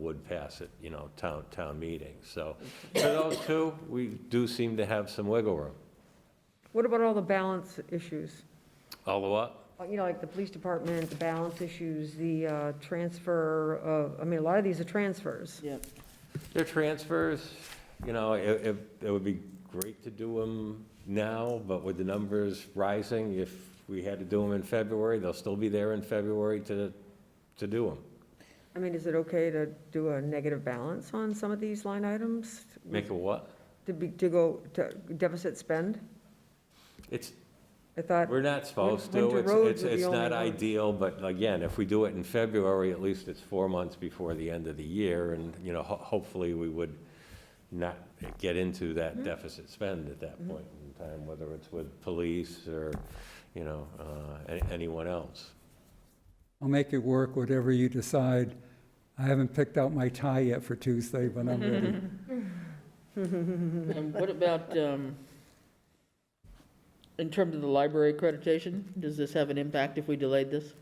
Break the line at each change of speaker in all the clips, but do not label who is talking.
would pass it, you know, town, town meeting. So for those two, we do seem to have some wiggle room.
What about all the balance issues?
Although, what?
Uh, You know, like the police department, the balance issues, the uh, transfer of, I mean, a lot of these are transfers.
Yep.
Their transfers, you know, it, it, it would be great to do them now, but with the numbers rising, if we had to do them in February, they'll still be there in February to, to do them.
I mean, is it okay to do a negative balance on some of these line items?
Make a what?
To be, to go to deficit spend?
It's,
I thought,
we're not supposed to.
Winter
It's,
roads
it's,
are the
it's
only
not
one.
ideal, but again, if we do it in February, at least it's four months before the end of the year. And, you know, ho- hopefully we would not get into
Mm-hmm.
that deficit spend at that point in time, whether it's with police or, you know, uh, a- anyone else.
I'll make it work, whatever you decide. I haven't picked out my tie yet for Tuesday, but I'm ready.
And what about, um, in terms of the library accreditation, does this have an impact if we delayed this?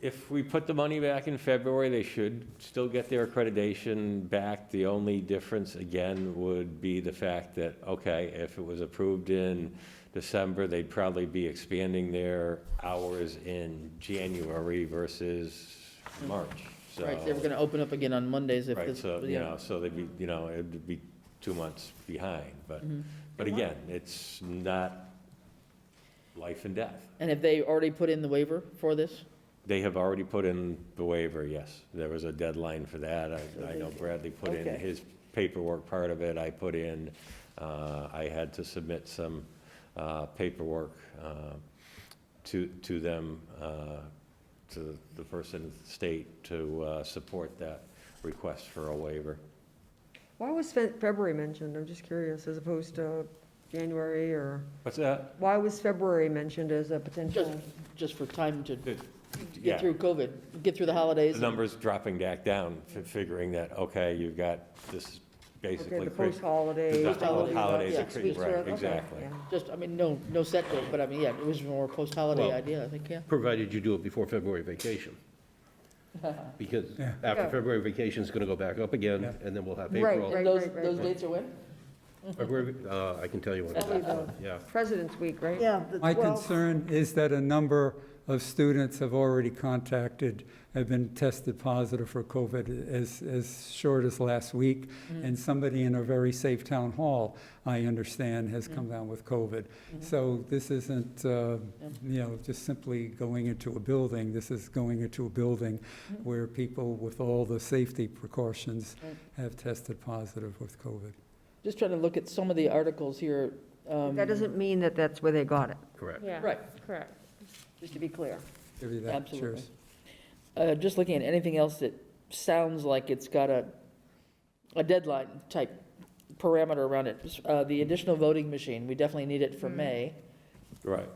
If we put the money back in February, they should still get their accreditation back. The only difference, again, would be the fact that, okay, if it was approved in December, they'd probably be expanding their hours in January versus March, so.
Right, they were gonna open up again on Mondays if
Uh, Right,
this.
so, you
yeah.
know, so they'd be, you know, it'd be two months behind, but,
Mm-hmm.
but
And why-
again, it's not life and death.
And have they already put in the waiver for this?
They have already put in the waiver, yes. There was a deadline for that. I, I know Bradley put in
Okay.
his paperwork part of it, I put in, uh, I had to submit some, uh, paperwork, uh, to, to them, uh, to the person in the state to, uh, support that request for a waiver.
why was Fe- February mentioned? I'm just curious, as opposed to January or,
What's that?
why was February mentioned as a potential?
Just for time to
Yeah.
get through COVID, get through the holidays?
The numbers dropping back down, fi- figuring that, okay, you've got this basically.
Okay, the
cri-
post-holiday.
The
Post-holiday,
holidays,
yeah.
are cri-
Sweet sort
right,
of- okay,
exactly.
yeah.
Just, I mean, no, no set date, but I mean, yeah, it was more post-holiday
Well-
idea, I think, yeah.
Provided you do it before February vacation. Because after
Yeah.
February vacation is going to go back up again,
Yeah.
and then we'll have
Right,
April.
right.
And those, those dates are when?
February, uh, I can tell you when.
Probably the
Yeah.
President's Week, right?
Yeah, the
My
12th.
concern is that a number of students have already contacted, have been tested positive for COVID as, as short as last week,
Mm.
and somebody in a very safe town hall, I understand, has
Mm.
come down with COVID.
Mm-hmm.
So this isn't, uh, you know, just simply going into a building, this is going into a building where people with all the safety precautions
Mm. Right.
have tested positive with COVID.
Just trying to look at some of the articles here. um,
That doesn't mean that that's where they got it,
Correct.
Yeah.
Right.
Correct.
just to be clear.
Give you that.
Absolutely.
Cheers.
Uh, Just looking at anything else that sounds like it's got a, a deadline type parameter around it. Uh, The additional voting machine, we definitely need it for May.
Right.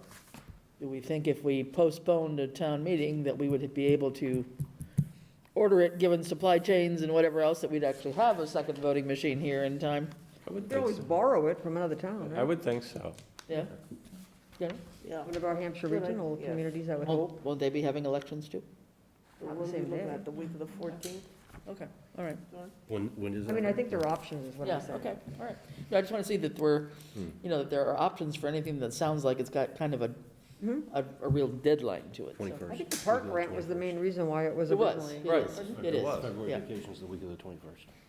Do we think if we postponed a town meeting that we would be able to order it, given supply chains and whatever else, that we'd actually have a second voting machine here in time?
I
You
would
can
think
always
so.
borrow it from another town,
I
right?
would think so.
Yeah? Yeah?
Yeah.
One of our Hampshire
Good idea,
regional
yes.
communities, I would hope.
Won't won't they be having elections too?
Not the
We'll be
same
looking
day.
at The week of the 14th.
Okay, all right.
When, when is
I
that?
mean, I think there are options, is what
Yeah,
I'm saying.
okay, all right. No, I just want to see that we're, you know, that there are options for anything that sounds like it's got kind of a,
Mm-hmm.
a, a real deadline to it. so.
21st.
I think the park grant was the main reason why it was
It was,
originally.
it is, it is,
February
yeah.
vacation is the week of the 21st.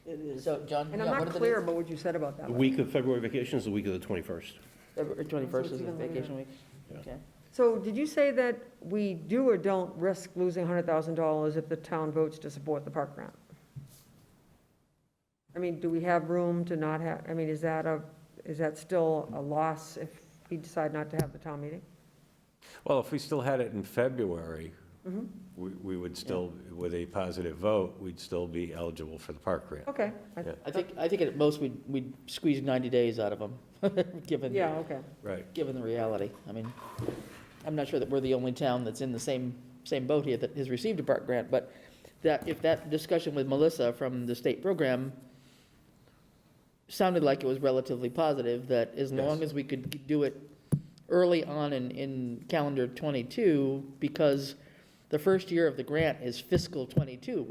It is.
So, John,
And
yeah,
I'm
what
not
are the
clear
dates?
about what you said about that.
The week of February vacation is the week of the 21st.
February twenty-first
So
is
it's
a
even later.
vacation week,
Yeah.
okay.
So did you say that we do or don't risk losing $100,000 if the town votes to support the park grant? I mean, do we have room to not have, I mean, is that a, is that still a loss if we decide not to have the town meeting?
Well, if we still had it in February, we, we would still, with a positive vote, we'd still be eligible for the park grant.
Okay. I-
Yeah.
I think, I think at most we'd, we'd squeeze ninety days out of them, given,
Yeah, okay.
Right.
given the reality. I mean, I'm not sure that we're the only town that's in the same, same boat here that has received a park grant, but that, if that discussion with Melissa from the state program sounded like it was relatively positive, that as long
Yes.
as we could do it early on in, in calendar twenty-two, because the first year of the grant is fiscal '22,